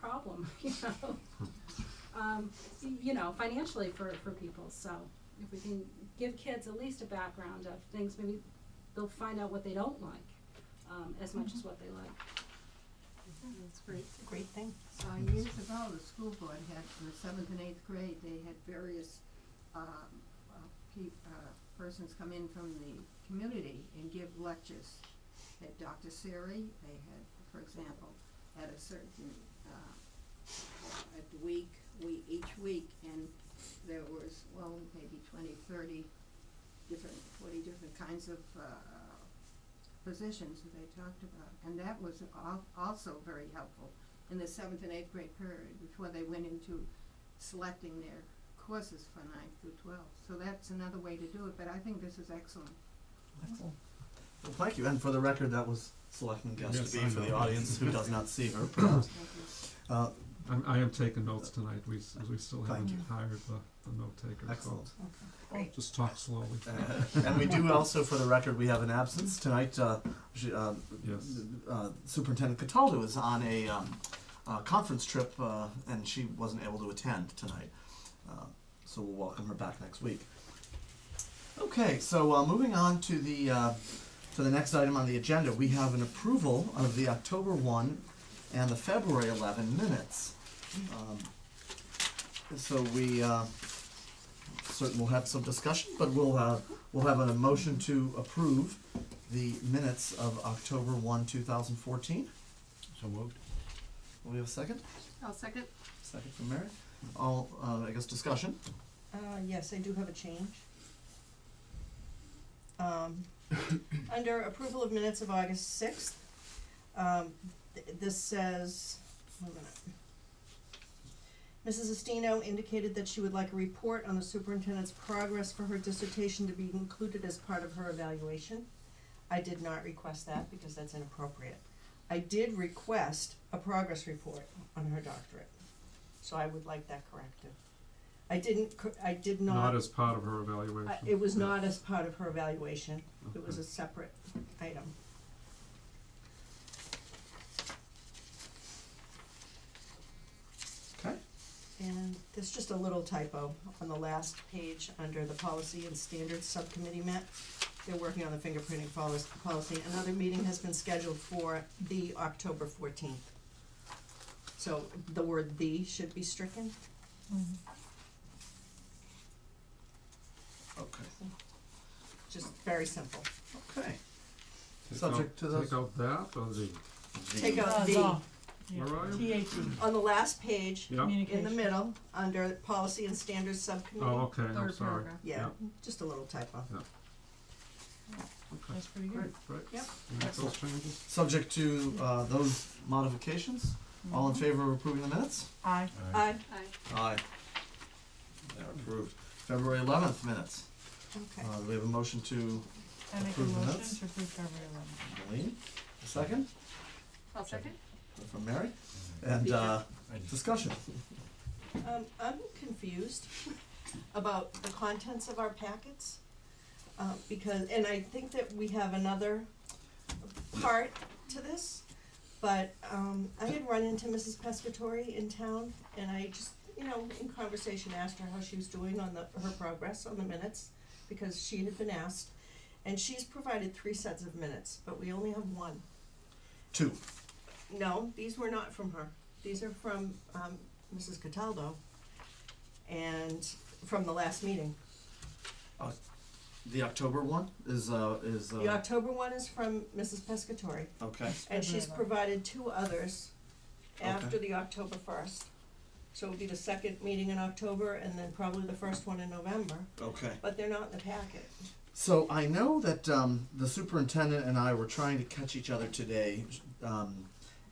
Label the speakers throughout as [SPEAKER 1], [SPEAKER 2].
[SPEAKER 1] you know, um, you know, financially for, for people. So if we can give kids at least a background of things, maybe they'll find out what they don't like um, as much as what they like.
[SPEAKER 2] Yeah, That's great.
[SPEAKER 3] It's a great thing.
[SPEAKER 2] Uh, years ago, the school board had, for the seventh and eighth grade, they had various, um, uh, pe- uh, persons come in from the community and give lectures. They had Dr. Siri, they had, for example, at a certain, uh, a week, we, each week, and there was, well, maybe twenty, thirty different, forty different kinds of, uh, positions that they talked about. And that was al- also very helpful in the seventh and eighth grade period before they went into selecting their courses for ninth through twelfth. So that's another way to do it, but I think this is excellent.
[SPEAKER 4] Excellent. Well, thank you. And for the record, that was Selectman Guest
[SPEAKER 5] Yes,
[SPEAKER 4] to be
[SPEAKER 5] I
[SPEAKER 4] for the
[SPEAKER 5] know.
[SPEAKER 4] audience who does not see her, perhaps.
[SPEAKER 2] Thank you.
[SPEAKER 4] Uh,
[SPEAKER 5] I'm, I am taking notes tonight, we, s- we still
[SPEAKER 4] Thank
[SPEAKER 5] haven't
[SPEAKER 3] you.
[SPEAKER 5] hired the, the note taker, so.
[SPEAKER 4] excellent.
[SPEAKER 3] Great.
[SPEAKER 5] Just talk slowly.
[SPEAKER 4] Uh, and we do also, for the record, we have an absence tonight. Uh, she- uh,
[SPEAKER 5] Yes.
[SPEAKER 4] uh, Superintendent Cataldo is on a um, uh, conference trip, uh, and she wasn't able to attend tonight. Uh, so we'll welcome her back next week. Okay, so uh, moving on to the uh, to the next item on the agenda, we have an approval of the October one and the February eleven minutes. Um, so we. Uh, certain we'll have some discussion, but we'll, uh, we'll have a motion to approve the minutes of October one, two thousand fourteen.
[SPEAKER 5] So moved.
[SPEAKER 4] Will we have a second?
[SPEAKER 2] I'll second.
[SPEAKER 4] Second from Mary. All, uh, I guess discussion.
[SPEAKER 3] Uh, yes, I do have a change. Um, under approval of minutes of August sixth, um, th- this says, wait a minute. Mrs. Estino indicated that she would like a report on the superintendent's progress for her dissertation to be included as part of her evaluation. I did not request that because that's inappropriate. I did request a progress report on her doctorate, so I would like that corrected. I didn't, cor- I did
[SPEAKER 5] Not as part of her evaluation.
[SPEAKER 3] uh, It was not as part of her evaluation, it was
[SPEAKER 5] Okay.
[SPEAKER 3] a separate item.
[SPEAKER 4] Okay.
[SPEAKER 3] And there's just a little typo on the last page under the policy and standards subcommittee met. They're working on the fingerprinting policy, policy. Another meeting has been scheduled for the October fourteenth. So the word "the" should be stricken.
[SPEAKER 4] Okay.
[SPEAKER 3] Just very simple.
[SPEAKER 4] Okay.
[SPEAKER 5] Take
[SPEAKER 4] Subject
[SPEAKER 5] out-
[SPEAKER 4] to those-
[SPEAKER 5] Take out that or the,
[SPEAKER 3] Take out
[SPEAKER 6] That's
[SPEAKER 3] "the"
[SPEAKER 6] all. Yeah.
[SPEAKER 5] where are you?
[SPEAKER 6] TAT,
[SPEAKER 3] on the last page.
[SPEAKER 5] Yeah,
[SPEAKER 3] in the
[SPEAKER 6] communication.
[SPEAKER 3] middle, under policy and standards
[SPEAKER 5] oh,
[SPEAKER 3] subcommittee.
[SPEAKER 5] okay, I'm
[SPEAKER 6] Third
[SPEAKER 5] sorry.
[SPEAKER 6] paragraph.
[SPEAKER 3] Yeah, just a little typo.
[SPEAKER 5] Okay,
[SPEAKER 6] That's pretty
[SPEAKER 4] Great.
[SPEAKER 6] good.
[SPEAKER 5] great.
[SPEAKER 3] Yep.
[SPEAKER 5] You make those changes?
[SPEAKER 4] Subject to, uh, those modifications. All in
[SPEAKER 3] Mm-hmm.
[SPEAKER 4] favor of approving the minutes?
[SPEAKER 6] Aye.
[SPEAKER 3] I,
[SPEAKER 1] I,
[SPEAKER 4] Aye. They're approved. February eleventh minutes. Uh,
[SPEAKER 3] okay,
[SPEAKER 4] do we have a motion to
[SPEAKER 6] I make a
[SPEAKER 4] Approve the
[SPEAKER 6] motion
[SPEAKER 4] minutes?
[SPEAKER 6] to approve February eleventh.
[SPEAKER 4] Eileen. A second
[SPEAKER 1] I'll second.
[SPEAKER 4] from Mary. And, uh, discussion.
[SPEAKER 3] um, I'm confused about the contents of our packets. Uh, because, and I think that we have another part to this, but, um, I had run into Mrs. Pescatori in town, and I just, you know, in conversation asked her how she was doing on the, her progress on the minutes, because she had been asked, and she's provided three sets of minutes, but we only have one.
[SPEAKER 4] Two.
[SPEAKER 3] No, these were not from her. These are from um, Mrs. Cataldo and from the last meeting.
[SPEAKER 4] The October one is, uh, is,
[SPEAKER 3] The
[SPEAKER 4] uh,
[SPEAKER 3] October one is from Mrs. Pescatori,
[SPEAKER 4] okay.
[SPEAKER 3] and she's
[SPEAKER 6] February
[SPEAKER 3] provided two others after the October first. So it'll be the second meeting in October and then probably the first one in November,
[SPEAKER 4] Okay.
[SPEAKER 3] but they're not in the packet.
[SPEAKER 4] So I know that um, the superintendent and I were trying to catch each other today, um,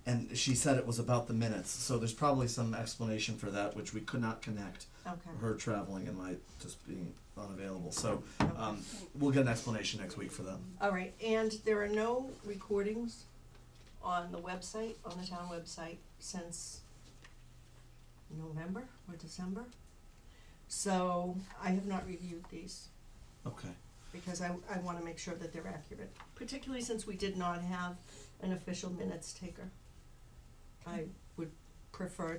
[SPEAKER 4] and she said it was about the minutes. So there's probably some explanation for that, which we could not connect.
[SPEAKER 3] Okay.
[SPEAKER 4] Her traveling and my just being unavailable. So
[SPEAKER 3] okay.
[SPEAKER 4] um, we'll get an explanation next week for them.
[SPEAKER 3] All right, and there are no recordings on the website, on the town website, since November or December. So I have not reviewed these,
[SPEAKER 4] Okay.
[SPEAKER 3] because I, I wanna make sure that they're accurate, particularly since we did not have an official minutes taker. I would prefer